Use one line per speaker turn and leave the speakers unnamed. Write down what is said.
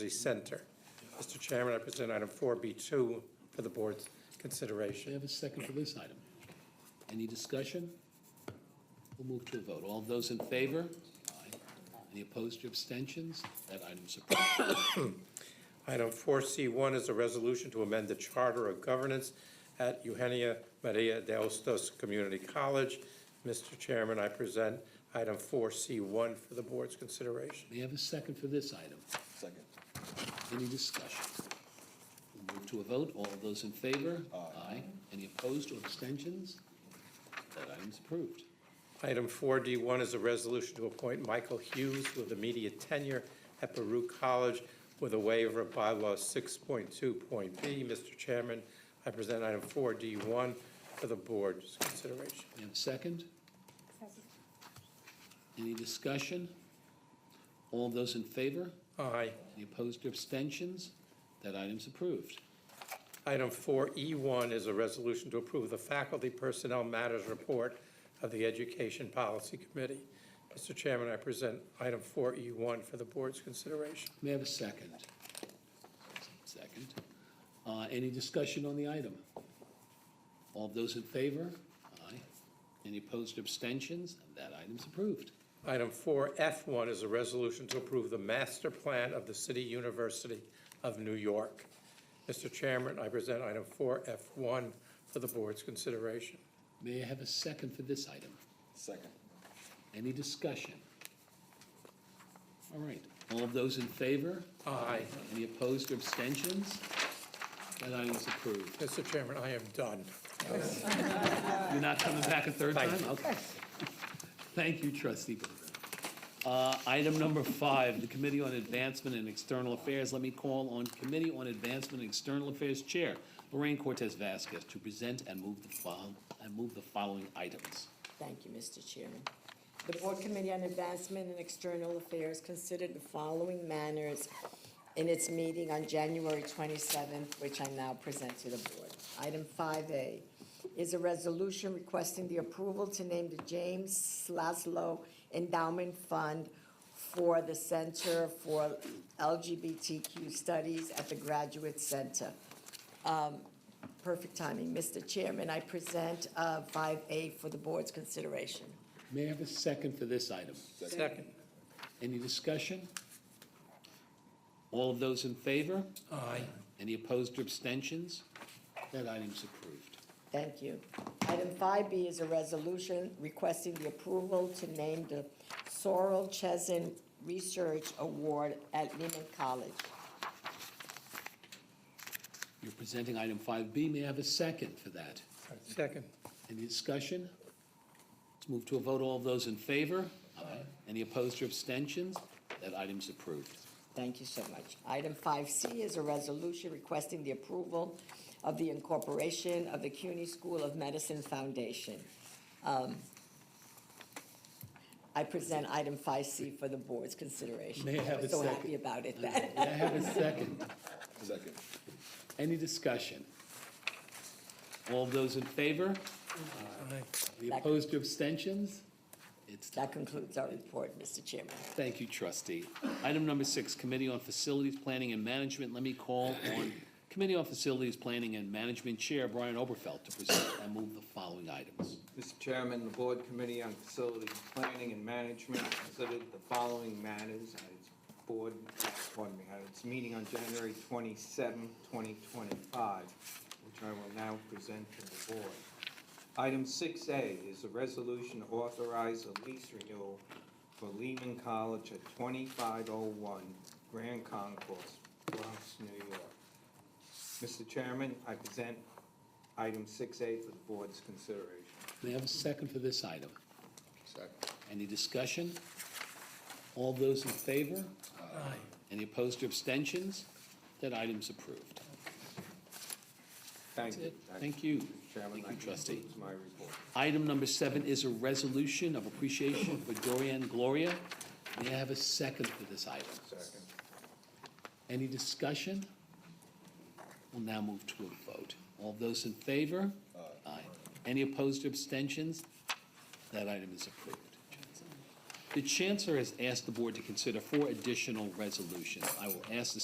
the center. Mr. Chairman, I present item 4B2 for the board's
Do I
consideration.
have a second for this item? Any discussion? We'll move to a vote. All those in favor? Aye. Any opposed or abstentions? That item's approved.
Item 4C1 is a resolution to amend the charter of governance at Eugenia Maria de Ostos Community College. Mr. Chairman, I present item 4C1 for the board's consideration.
May I have a second for this item?
Second.
Any discussion? We'll move to a vote. All those in favor? Aye. Any opposed or abstentions? That item's approved.
Item 4D1 is a resolution to appoint Michael Hughes with immediate tenure at Baruch College with a waiver of bylaw 6.2.b. Mr. Chairman, I present item 4D1 for the board's consideration.
May I have a second?
Second.
Any discussion? All those in favor?
Aye.
Any opposed or abstentions? That item's approved.
Item 4E1 is a resolution to approve the Faculty Personnel Matters Report of the Education Policy Committee. Mr. Chairman, I present item 4E1 for the board's consideration.
May I have a second? Second. Uh, Any discussion on the item? All those in favor? Aye. Any opposed or abstentions? That item's approved.
Item 4F1 is a resolution to approve the master plan of the City University of New York. Mr. Chairman, I present item 4F1 for the board's consideration.
May I have a second for this item?
Second.
Any discussion? All right. All of those in favor?
Aye.
Any opposed or abstentions? That item's approved.
Mr. Chairman, I am done.
You're not coming back a third time?
Thank
Okay. Thank you, trustee Berger. Uh, Item number five, the Committee on Advancement and External Affairs. Let me call on Committee on Advancement and External Affairs Chair Lorraine Cortez Vasquez to present and move the fol- and move the following items.
Thank you, Mr. Chairman. The Board Committee on Advancement and External Affairs considered the following matters in its meeting on January 27th, which I now present to the Board. Item 5A is a resolution requesting the approval to name the James Laszlo Endowment Fund for the Center for LGBTQ Studies at the Graduate Center. Perfect timing. Mr. Chairman, I present uh, 5A for the board's consideration.
May I have a second for this item?
Second.
Any discussion? All of those in favor?
Aye.
Any opposed or abstentions? That item's approved.
Thank you. Item 5B is a resolution requesting the approval to name the Sorrel Chesn Research Award at Lehman College.
You're presenting item 5B. May I have a second for that?
Second.
Any discussion? Let's move to a vote. All of those in favor? Aye. Any opposed or abstentions? That item's approved.
Thank you so much. Item 5C is a resolution requesting the approval of the incorporation of the CUNY School of Medicine Foundation. Um, I present item 5C for the board's consideration.
May I have a
was So
second?
happy about it that.
May I have a second?
Second.
Any discussion? All of those in favor?
Aye.
Any opposed or abstentions? It's done.
That concludes our report, Mr. Chairman.
Thank you, trustee. Item number six, Committee on Facilities Planning and Management. Let me call on Committee on Facilities Planning and Management Chair Brian Oberfeld to present and move the following items.
Mr. Chairman, the Board Committee on Facilities Planning and Management considered the following matters at its board, pardon me, at its meeting on January 27, 2025, which I will now present to the Board. Item 6A is a resolution to authorize a lease renewal for Lehman College at 2501 Grand Concourse, Bronx, New York. Mr. Chairman, I present item 6A for the Board's consideration.
May I have a second for this item?
Second.
Any discussion? All those in favor?
Aye.
Any opposed or abstentions? That item's approved.
Thank
That's
you.
it. Thank you.
Chairman,
Thank
that
you, trustee.
concludes my report.
Item number seven is a resolution of appreciation for Dorian Gloria. May I have a second for this item?
Second.
Any discussion? We'll now move to a vote. All those in favor? Aye. Any opposed or abstentions? That item is approved. The Chancellor has asked the Board to consider four additional resolutions. I will ask the